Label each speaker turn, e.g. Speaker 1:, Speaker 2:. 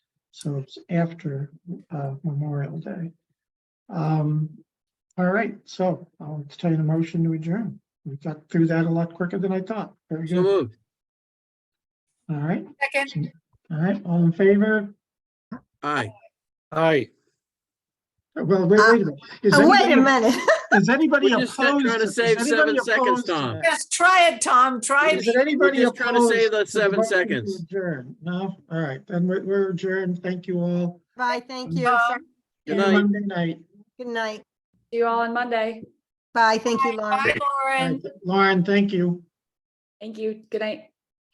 Speaker 1: So it's after uh, Memorial Day. Um, All right, so I'll entertain a motion to adjourn. We got through that a lot quicker than I thought. Very
Speaker 2: So
Speaker 1: good.
Speaker 2: moved. Mm-hmm.
Speaker 1: All right,
Speaker 3: Second,
Speaker 1: all right, all in favor?
Speaker 2: Aye. Aye.
Speaker 1: Well, wait, wait a minute. Is
Speaker 4: Oh, Wait a
Speaker 1: anybody-
Speaker 4: minute.
Speaker 1: Is anybody
Speaker 2: We're just trying
Speaker 1: opposed?
Speaker 2: to
Speaker 1: is
Speaker 2: save
Speaker 1: anybody
Speaker 2: seven seconds,
Speaker 1: opposed to
Speaker 2: Tom.
Speaker 1: that?
Speaker 3: just try it, Tom, try
Speaker 1: Is
Speaker 3: it.
Speaker 1: there anybody
Speaker 2: just trying to
Speaker 1: opposed?
Speaker 2: save the
Speaker 1: the
Speaker 2: seven
Speaker 1: motion to
Speaker 2: seconds.
Speaker 1: adjourn? No, all right, then we're- we're adjourned. Thank you all.
Speaker 4: Bye, thank you.
Speaker 3: Bye.
Speaker 2: Good
Speaker 1: See you
Speaker 2: night.
Speaker 1: Monday night.
Speaker 4: Good night.
Speaker 5: See you all on Monday.
Speaker 4: Bye, thank you, Laura.
Speaker 3: Bye, Lauren.
Speaker 1: Lauren, thank you.
Speaker 5: Thank you. Good night.